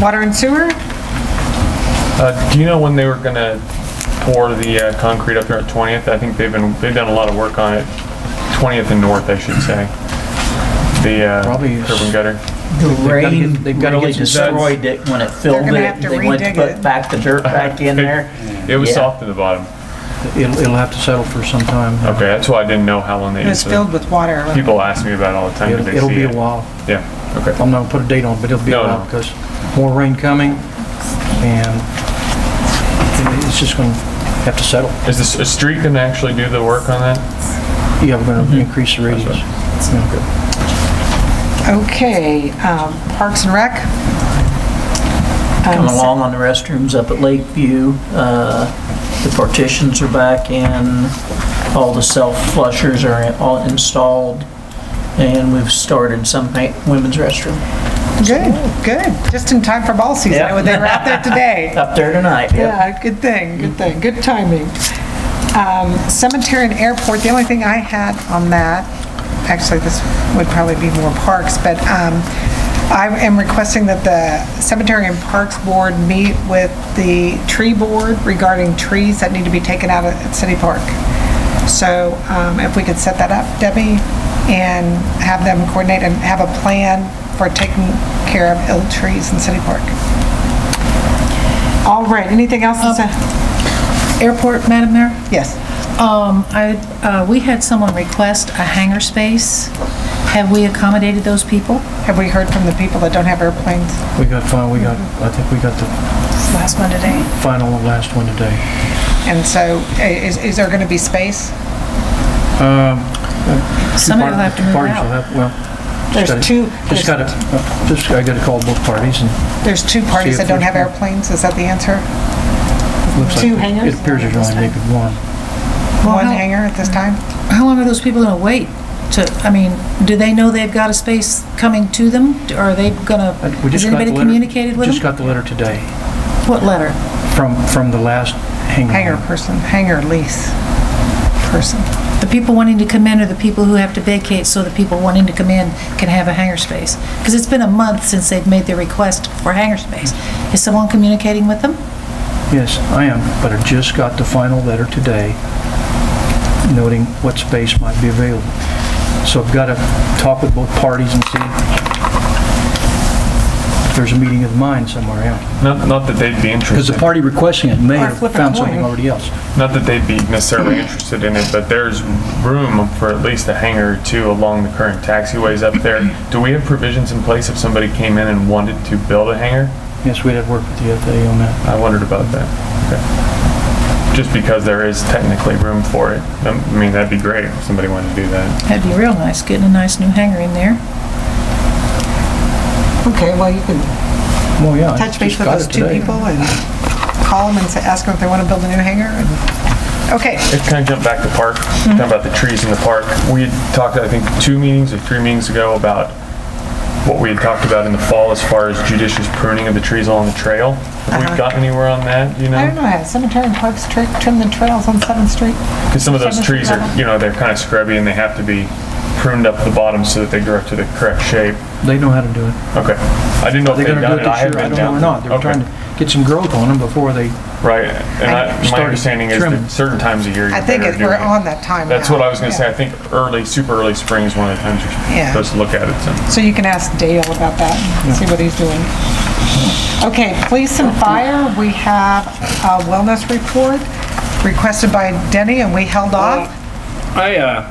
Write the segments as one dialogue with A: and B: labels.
A: Water and sewer?
B: Uh, do you know when they were gonna pour the uh, concrete up there at 20th? I think they've been, they've done a lot of work on it, 20th and North, I should say. The, uh,
C: Probably
B: curb and gutter.
A: The
C: They've gotta get- They've got to get destroyed it when it filled
A: gonna have
C: it.
A: to
C: They went to
A: redig it.
C: put back the dirt back in there.
B: It was
C: Yeah.
B: soft at the bottom.
D: It'll, it'll have to settle for some time.
B: Okay, that's why I didn't know how long they
A: It was
B: did
A: filled
B: it.
A: with water.
B: People ask me about it all the time,
D: It'll,
B: because they
D: it'll
B: see
D: be a
B: it.
D: while.
B: Yeah, okay.
D: I'm not gonna put a date on, it, but it'll be a
B: No, no.
D: while because more rain coming and it's just gonna have to settle.
B: Is the s- a street gonna actually do the work on that?
D: Yeah, we're
B: Mm-hmm.
D: gonna increase the radius. Yeah.
A: Okay, um, Parks and Rec? Um,
C: Come along on the restrooms up at Lakeview. Uh, The partitions are back in, all the self-flushers are in- all installed, and we've started some pa- women's restroom
A: Good, good. Just in time for ball season.
C: Yeah.
A: They were out there today.
C: up there tonight.
A: Yeah, good thing, good thing, good timing. Um, Cemetery and airport, the only thing I had on that, actually, this would probably be more parks, but um, I am requesting that the Cemetery and Parks Board meet with the tree board regarding trees that need to be taken out at City Park. So um, if we could set that up, Debbie, and have them coordinate and have a plan for taking care of ill trees in City Park. All right, anything else? Lisa?
E: Airport, Madam Mayor?
A: Yes.
E: Um, I, uh, we had someone request a hangar space. Have we accommodated those people?
A: Have we heard from the people that don't have airplanes?
D: We got final, we got,
B: Mm-hmm.
D: I think we got the
E: Last one today.
D: final and last one today.
A: And so i- is, is there going to be space?
B: Um,
E: Somebody will have to move
D: Parties will
E: out.
D: have, well,
A: There's
D: gotta-
A: two,
D: just
A: there's
D: gotta, uh, just, I gotta call both parties and
A: there's two parties
D: See if
A: that don't
D: there's
A: have airplanes, is that the answer?
D: it looks like.
A: Two
D: it-
A: hangers?
D: It appears there's only maybe one.
E: Well,
A: One
E: how-
A: hangar at this time?
E: How long are those people gonna wait to, I mean, do they know they've got a space coming to them? Are they gonna,
D: Uh, we
E: has
D: just got the
E: anybody
D: letter-
E: communicated with
D: Just
E: them?
D: got the letter today
E: What letter?
D: from, from the last hangar.
A: Hangar person, hangar lease person.
E: The people wanting to come in or the people who have to vacate so the people wanting to come in can have a hangar space? Because it's been a month since they've made their request for hangar space. Is someone communicating with them?
D: Yes, I am, but I just got the final letter today noting what space might be available. So I've got to talk with both parties and see if there's a meeting of the mind somewhere else.
B: Not, not that they'd be
D: Because
B: interested,
D: the party requesting it may have
A: flip a
D: found
A: coin.
D: something already else.
B: not that they'd be necessarily interested in it, but there's room for at least a hangar or two along the current taxiways up there. Do we have provisions in place if somebody came in and wanted to build a hangar?
D: Yes, we'd have worked with the FAA on that.
B: I wondered about that. Okay. Just because there is technically room for it. Um, I mean, that'd be great if somebody wanted to do that.
E: That'd be real nice, getting a nice new hangar in there.
A: Okay, well, you can
D: Well, yeah. I
A: touch base
D: just
A: with
D: got
A: those
D: it
A: two
D: today.
A: people and call them and say- ask them if they want to build a new hangar. and- Okay,
B: Let's kind of jump back to park,
A: Mm-hmm.
B: talking about the trees in the park. We had talked, I think, two meetings or three meetings ago about what we had talked about in the fall as far as judicious pruning of the trees along the trail. Have we gotten anywhere on that, you
A: Uh-huh. I don't know,
B: know?
A: has Cemetery and Parks tri- trimmed the trails on 7th Street?
B: Because some of those
A: Seventh
B: trees are,
A: level.
B: you know, they're kind of scrubby and they have to be pruned up at the bottom so that they grow up to the correct shape.
D: They know how to do it.
B: Okay. I didn't know if
D: They're
B: they'd
D: going to do
B: done
D: it
B: it. I
D: this
B: haven't
D: year. I
B: been
D: don't
B: down.
D: know or not. They were
B: Okay.
D: trying to get some growth on them before they,
B: Right, and I, my
D: started
B: understanding is
D: trimming.
B: that certain times of year you're
A: I think
B: better
A: it- we're
B: doing it.
A: on that time
B: That's
A: now.
B: what I was gonna
A: Yeah.
B: say, I think early, super early spring is one of the times you're
A: Yeah.
B: supposed to look at it, so.
A: So you can ask Dale about that, and see what he's doing. Okay, police and fire, we have a wellness report requested by Denny, and we held
B: Oh,
A: off.
F: I, uh,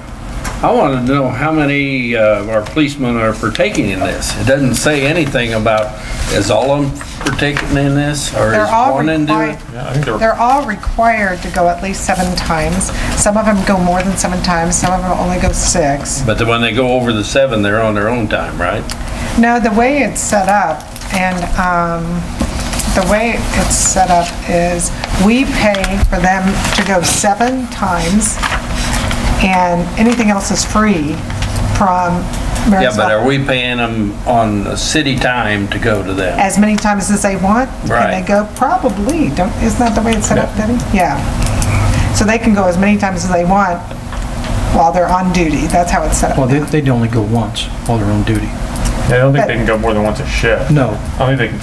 F: I want to know how many uh, of our policemen are partaking in this. It doesn't say anything about, is all of them partaking in this, or
A: They're
F: is
A: all
F: one into
A: required,
F: it?
B: Yeah, I think there were,
A: they're all required to go at least seven times. Some of them go more than seven times, some of them only go six.
F: But then when they go over the seven, they're on their own time, right?
A: No, the way it's set up, and um, the way it's set up is, we pay for them to go seven times, and anything else is free from Marysville.
F: Yeah, but are we paying them on the city time to go to them?
A: as many times as they want. And
F: Right.
A: they go, probably, don't, isn't that the way it's set up, Debbie? Yeah. So they can go as many times as they want while they're on duty. That's how it's set up
D: well, they-
A: now.
D: they'd only go once while they're on duty.
B: I don't think they can go more than once a shift.
D: No,
B: I think they can